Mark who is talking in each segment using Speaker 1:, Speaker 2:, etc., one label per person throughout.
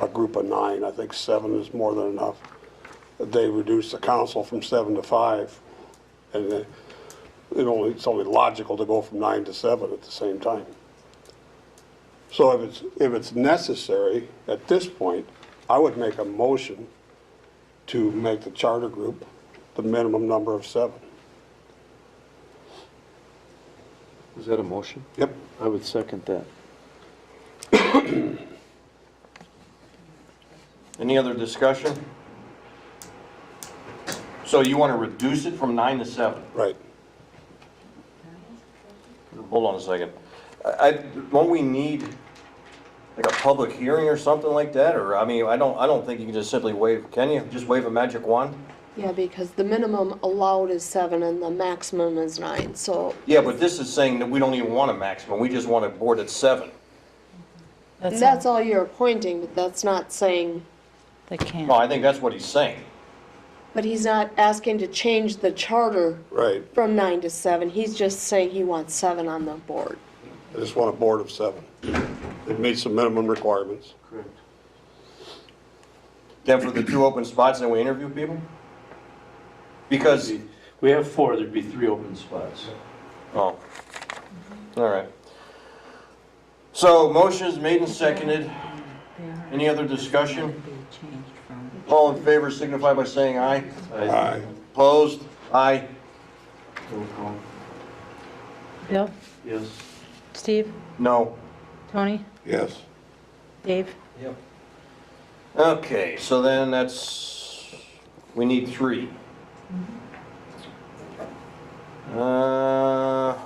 Speaker 1: a group of nine. I think seven is more than enough. They reduced the council from seven to five. And it it only, it's only logical to go from nine to seven at the same time. So if it's, if it's necessary, at this point, I would make a motion to make the charter group the minimum number of seven.
Speaker 2: Is that a motion?
Speaker 1: Yep.
Speaker 2: I would second that.
Speaker 3: Any other discussion? So you want to reduce it from nine to seven?
Speaker 1: Right.
Speaker 3: Hold on a second. I, I- don't we need like a public hearing or something like that? Or, I mean, I don't, I don't think you can just simply wave, can you? Just wave a magic wand?
Speaker 4: Yeah, because the minimum allowed is seven and the maximum is nine, so
Speaker 3: Yeah, but this is saying that we don't even want a maximum. We just want a board at seven.
Speaker 4: that's all you're appointing, but that's not saying,
Speaker 5: They can't.
Speaker 3: No, I think that's what he's saying.
Speaker 4: but he's not asking to change the charter
Speaker 1: Right.
Speaker 4: from nine to seven, he's just saying he wants seven on the board.
Speaker 1: I just want a board of seven. It meets the minimum requirements.
Speaker 3: Then for the two open spots, then we interview people? Because,
Speaker 6: We have four, there'd be three open spots.
Speaker 3: oh, all right. So motion is made and seconded. Any other discussion? All in favor signify by saying aye.
Speaker 1: Aye.
Speaker 3: Opposed? Aye.
Speaker 6: Roll call.
Speaker 5: Bill,
Speaker 6: Yes.
Speaker 5: Steve,
Speaker 3: No.
Speaker 5: Tony,
Speaker 1: Yes.
Speaker 5: Dave,
Speaker 3: Okay, so then that's, we need three. Uh, all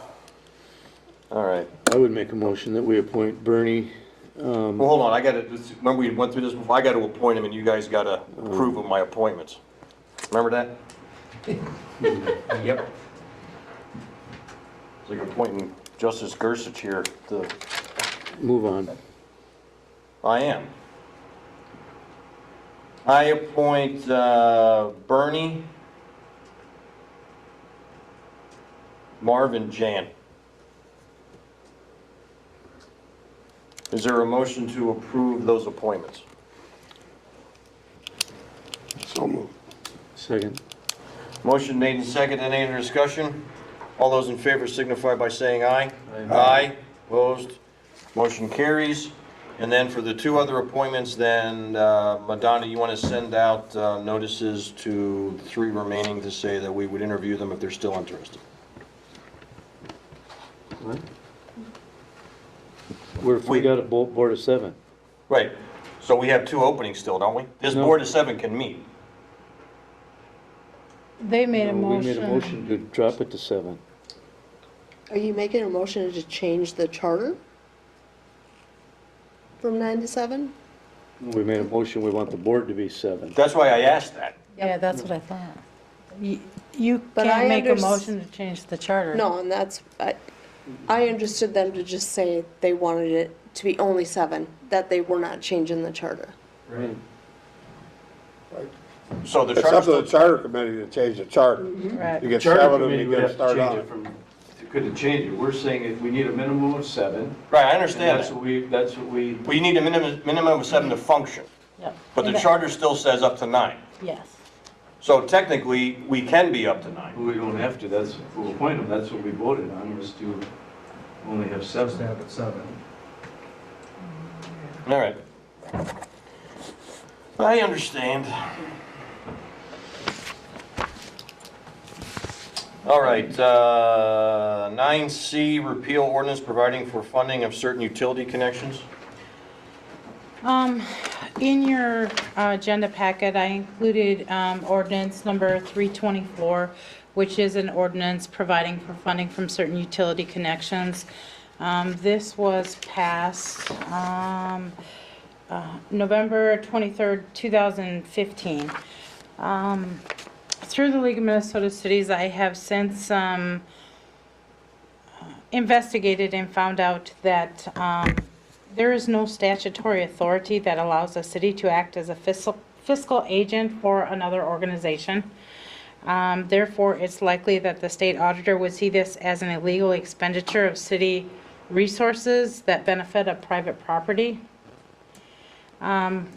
Speaker 3: Uh, right.
Speaker 2: I would make a motion that we appoint Bernie,
Speaker 3: Well, hold on, I gotta, remember we went through this before, I gotta appoint him and you guys gotta approve of my appointments. Remember that? Yep. It's like appointing Justice Gersich here, the,
Speaker 2: move on.
Speaker 3: I am. I appoint, uh, Bernie, Marvin Jan. Is there a motion to approve those appointments?
Speaker 1: So moved.
Speaker 2: Second.
Speaker 3: Motion made and seconded. Any other discussion? All those in favor signify by saying aye.
Speaker 6: Aye.
Speaker 3: Aye. Opposed? Motion carries. And then for the two other appointments, then, uh, Madonna, you want to send out uh, notices to the three remaining to say that we would interview them if they're still interested?
Speaker 2: What? We're, we got a bo- board of seven.
Speaker 3: Right. So we have two openings still, don't we? This
Speaker 2: No.
Speaker 3: board of seven can meet.
Speaker 5: they made a
Speaker 2: No,
Speaker 5: motion.
Speaker 2: We made a motion to drop it to seven.
Speaker 4: Are you making a motion to change the charter? From nine to seven?
Speaker 2: We made a motion, we want the board to be seven.
Speaker 3: That's why I asked that.
Speaker 5: Yeah, that's what I thought. You- You
Speaker 4: But
Speaker 5: can't
Speaker 4: I
Speaker 5: make a
Speaker 4: unders-
Speaker 5: motion to change the charter.
Speaker 4: No, and that's, I, I understood them to just say they wanted it to be only seven, that they were not changing the charter.
Speaker 3: So the
Speaker 1: It's up to the
Speaker 3: charter,
Speaker 1: charter committee to change the charter. You
Speaker 5: Right.
Speaker 1: get
Speaker 6: Mm-hmm. Charter
Speaker 1: seven and
Speaker 6: committee
Speaker 1: you
Speaker 6: would
Speaker 1: get to
Speaker 6: have to
Speaker 1: start
Speaker 6: change it
Speaker 1: on.
Speaker 6: from, couldn't change it. We're saying if we need a minimum of seven.
Speaker 3: right, I
Speaker 6: and
Speaker 3: understand
Speaker 6: That's
Speaker 3: that.
Speaker 6: what we, that's what we,
Speaker 3: We need a minimum, minimum of seven to function,
Speaker 5: Yep.
Speaker 3: but the charter still says up to nine.
Speaker 5: Yes.
Speaker 3: So technically, we can be up to nine.
Speaker 6: we don't have to, that's, we'll appoint them, that's what we voted on, was to only have
Speaker 7: Just
Speaker 6: seven.
Speaker 7: have it seven.
Speaker 3: All right. I understand. All right, uh, 9C, repeal ordinance providing for funding of certain utility connections.
Speaker 8: Um, in your uh, agenda packet, I included, um, ordinance number three twenty-four, which is an ordinance providing for funding from certain utility connections. Um, this was passed, um, uh, November twenty-third, two thousand fifteen. Um, through the League of Minnesota Cities, I have sent some investigated and found out that um, there is no statutory authority that allows a city to act as a fiscal fiscal agent for another organization. Um, Therefore, it's likely that the state auditor would see this as an illegal expenditure of city resources that benefit a private property. Um,